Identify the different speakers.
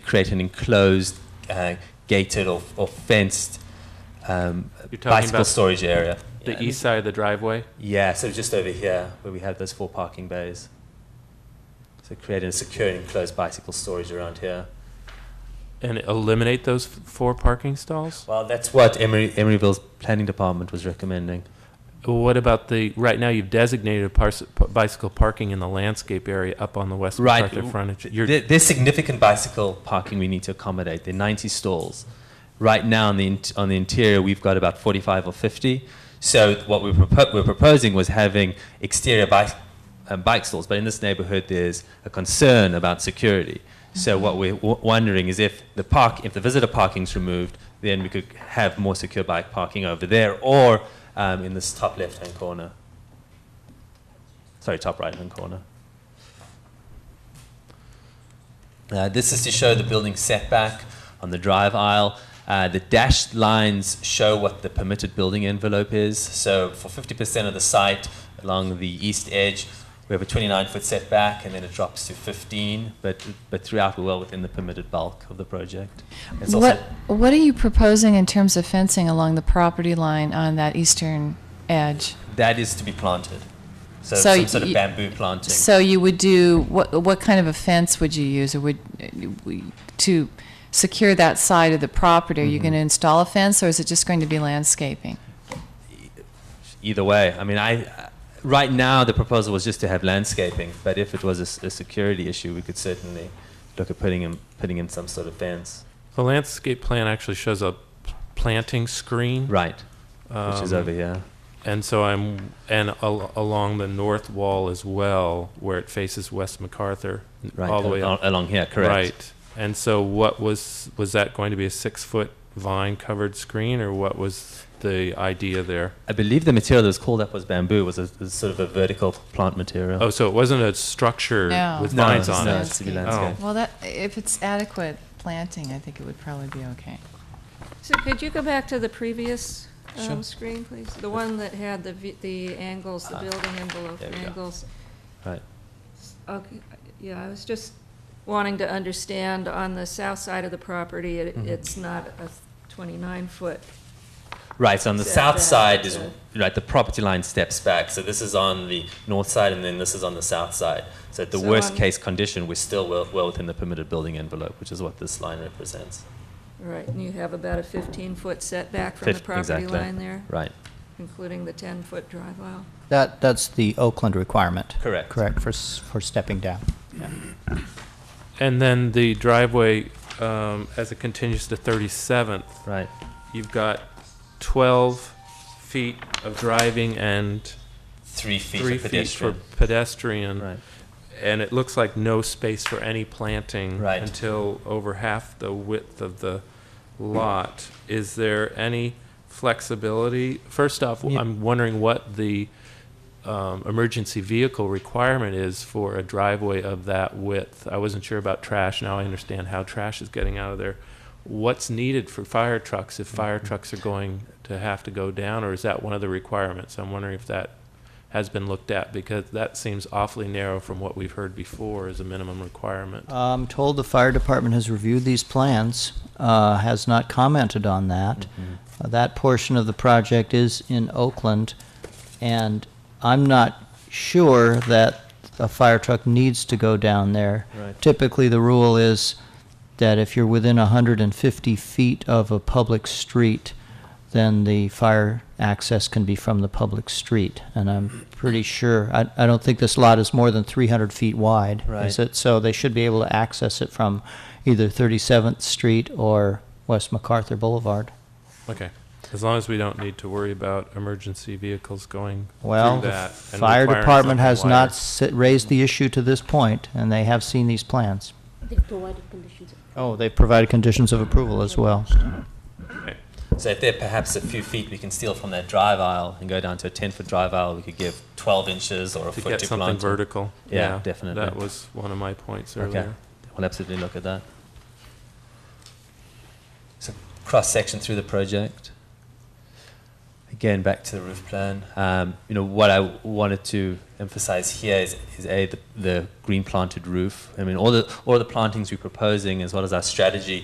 Speaker 1: create an enclosed, uh, gated or, or fenced um,
Speaker 2: You're talking
Speaker 1: bicycle
Speaker 2: about
Speaker 1: storage area.
Speaker 2: The
Speaker 1: Yeah,
Speaker 2: east side of the driveway?
Speaker 1: Yeah, so just over here where we have those four parking bays. So creating a secure enclosed bicycle storage around here.
Speaker 2: And eliminate those f- four parking stalls?
Speaker 1: Well, that's what Emery, Emeryville's planning department was recommending.
Speaker 2: What about the, right now you've designated pars- p- bicycle parking in the landscape area up on the west
Speaker 1: Right.
Speaker 2: Macarthur frontage? You're-
Speaker 1: There, there's significant bicycle parking we need to accommodate. There are 90 stalls. Right now on the, in- on the interior, we've got about 45 or 50. So what we propo- we're proposing was having exterior bike, um, bike stalls, but in this neighborhood, there's a concern about security. So what we're w- wondering is if the park, if the visitor parking's removed, then we could have more secure bike parking over there or um, in this top left-hand corner. Sorry, top right-hand corner. Uh, this is to show the building setback on the drive aisle. Uh, the dashed lines show what the permitted building envelope is. So for 50% of the site along the east edge, we have a 29 foot setback and then it drops to 15, but, but throughout we're well within the permitted bulk of the project. It's
Speaker 3: What,
Speaker 1: also
Speaker 3: what are you proposing in terms of fencing along the property line on that eastern edge?
Speaker 1: that is to be planted. So,
Speaker 3: So
Speaker 1: some sort of
Speaker 3: y-
Speaker 1: bamboo planting.
Speaker 3: So you would do, what, what kind of a fence would you use, or would, to secure that side of the property? Are you going to install a fence, or is it just going to be landscaping?
Speaker 1: Either way, I mean, I, right now the proposal was just to have landscaping, but if it was a s- a, security issue, we could certainly look at putting in, putting in some sort of fence.
Speaker 2: The landscape plan actually shows a p- planting screen.
Speaker 1: Right, which is
Speaker 2: um,
Speaker 1: over here.
Speaker 2: And so I'm, and al- along the north wall as well, where it faces West MacArthur,
Speaker 1: Right,
Speaker 2: all the way
Speaker 1: al-
Speaker 2: up.
Speaker 1: along here, correct.
Speaker 2: Right. And so what was, was that going to be a six-foot vine-covered screen, or what was the idea there?
Speaker 1: I believe the material that was called up was bamboo, was a, was sort of a vertical plant material.
Speaker 2: Oh, so it wasn't a structure
Speaker 3: No.
Speaker 2: with
Speaker 1: No,
Speaker 2: vines
Speaker 1: it's
Speaker 2: on
Speaker 1: not.
Speaker 2: it?
Speaker 1: it's to be
Speaker 3: Landscape.
Speaker 1: landscaped.
Speaker 3: Well, that, if it's adequate planting, I think it would probably be okay.
Speaker 4: So could you go back to the previous um,
Speaker 1: Sure.
Speaker 4: screen, please? The one that had the, vi- the angles, the
Speaker 1: Ah,
Speaker 4: building envelope
Speaker 1: there we go.
Speaker 4: angles.
Speaker 2: Oh.
Speaker 1: Right.
Speaker 4: Okay, yeah, I was just wanting to understand, on the south side of the property, it-
Speaker 1: Mhm.
Speaker 4: it's not a 29-foot.
Speaker 1: Right, so on the south
Speaker 4: Setback,
Speaker 1: side is,
Speaker 4: so-
Speaker 1: right, the property line steps back. So this is on the north side and then this is on the south side. So at the
Speaker 4: So
Speaker 1: worst
Speaker 4: on-
Speaker 1: case condition, we're still well, well within the permitted building envelope, which is what this line represents.
Speaker 4: Right, and you have about a 15-foot setback from the
Speaker 1: Fif-
Speaker 4: property
Speaker 1: exactly.
Speaker 4: line there,
Speaker 1: Right.
Speaker 4: including the 10-foot drive aisle.
Speaker 5: That, that's the Oakland requirement.
Speaker 1: Correct.
Speaker 5: Correct, for, s- for stepping down.
Speaker 2: And then the driveway, um, as it continues to 37th,
Speaker 1: Right.
Speaker 2: you've got 12 feet of driving and
Speaker 1: Three feet
Speaker 2: three
Speaker 1: for
Speaker 2: feet for
Speaker 1: pedestrian.
Speaker 2: pedestrian.
Speaker 1: right.
Speaker 2: And it looks like no space for any planting
Speaker 1: Right.
Speaker 2: until over half the width of the lot. Is there any flexibility? First off,
Speaker 1: Yeah.
Speaker 2: I'm wondering what the um, emergency vehicle requirement is for a driveway of that width. I wasn't sure about trash. Now I understand how trash is getting out of there. What's needed for fire trucks if fire
Speaker 1: Mm-hmm.
Speaker 2: trucks are going to have to go down, or is that one of the requirements? I'm wondering if that has been looked at because that seems awfully narrow from what we've heard before as a minimum requirement.
Speaker 5: I'm told the fire department has reviewed these plans, uh, has not commented on that. Uh, That portion of the project is in Oakland, and I'm not sure that a fire truck needs to go down there.
Speaker 1: Right.
Speaker 5: Typically, the rule is that if you're within 150 feet of a public street, then the fire access can be from the public street. And I'm pretty sure, I, I don't think this lot is more than 300 feet wide.
Speaker 1: Right.
Speaker 5: Is it? So they should be able to access it from either 37th Street or West MacArthur Boulevard.
Speaker 2: Okay. As long as we don't need to worry about emergency vehicles going
Speaker 5: Well,
Speaker 2: through
Speaker 5: the
Speaker 2: that. and
Speaker 5: fire
Speaker 2: requiring
Speaker 5: department has
Speaker 2: something
Speaker 5: not
Speaker 2: wider.
Speaker 5: si- raised the issue to this point, and they have seen these plans.
Speaker 6: They've provided conditions.
Speaker 5: Oh, they've provided conditions of approval as well.
Speaker 1: So if there are perhaps a few feet we can steal from that drive aisle and go down to a 10 foot drive aisle, we could give 12 inches or a
Speaker 2: to
Speaker 1: foot
Speaker 2: get
Speaker 1: to
Speaker 2: something
Speaker 1: plant.
Speaker 2: vertical.
Speaker 1: Yeah, definitely.
Speaker 2: That was one of my points
Speaker 1: Okay.
Speaker 2: earlier.
Speaker 1: We'll absolutely look at that. So cross section through the project. again, back to the roof plan. Um, you know, what I wanted to emphasize here is, is a the, the green planted roof. I mean, all the all the plantings we're proposing, as well as our strategy,